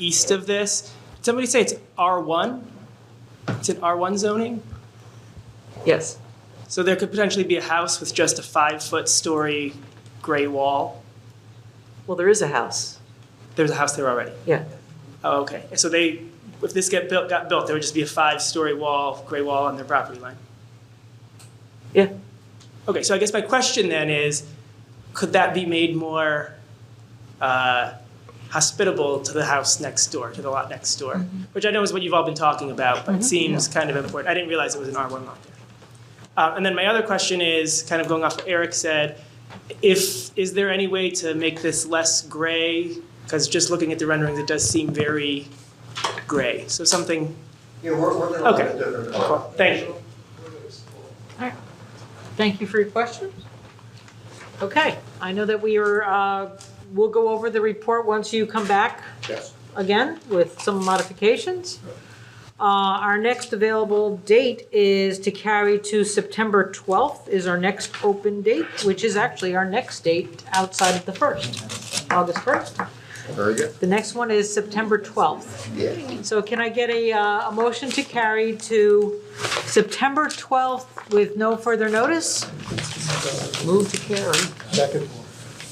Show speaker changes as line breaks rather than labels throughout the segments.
east of this. Somebody say it's R1? It's an R1 zoning?
Yes.
So there could potentially be a house with just a five-foot story gray wall.
Well, there is a house.
There's a house there already.
Yeah.
Oh, okay. So they, if this get built, got built, there would just be a five-story wall, gray wall on their property line.
Yeah.
Okay, so I guess my question then is, could that be made more uh, hospitable to the house next door, to the lot next door? Which I know is what you've all been talking about, but it seems kind of important. I didn't realize it was an R1 lot there. Uh, and then my other question is, kind of going off what Eric said, if is there any way to make this less gray? Because just looking at the renderings, it does seem very gray. So something.
Yeah, we're, we're gonna look
Okay.
at different. color.
Thank you.
Thank you for your questions. Okay, I know that we are, uh, we'll go over the report once you come back
Yes.
again with some modifications. Uh, Our next available date is to carry to September 12th is our next open date, which is actually our next date outside of the 1st, August 1st.
Very good.
The next one is September 12th.
Yeah.
So can I get a, uh, a motion to carry to September 12th with no further notice?
Move to carry.
Second.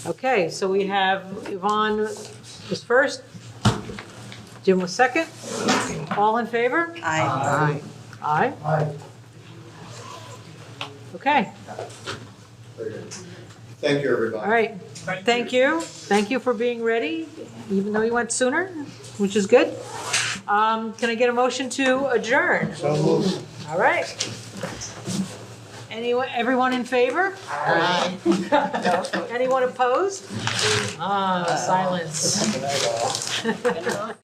Okay, so we have Yvonne was first, Jim was second. All in favor?
Aye.
Aye.
Aye.
Okay,
Very good. Thank you, everybody.
all right. Thank you. Thank you for being ready, even though you went sooner, which is good. Um, Can I get a motion to adjourn?
So moved.
All right. Anyone, everyone in favor? Anyone opposed? Ah, silence.
Good night, all.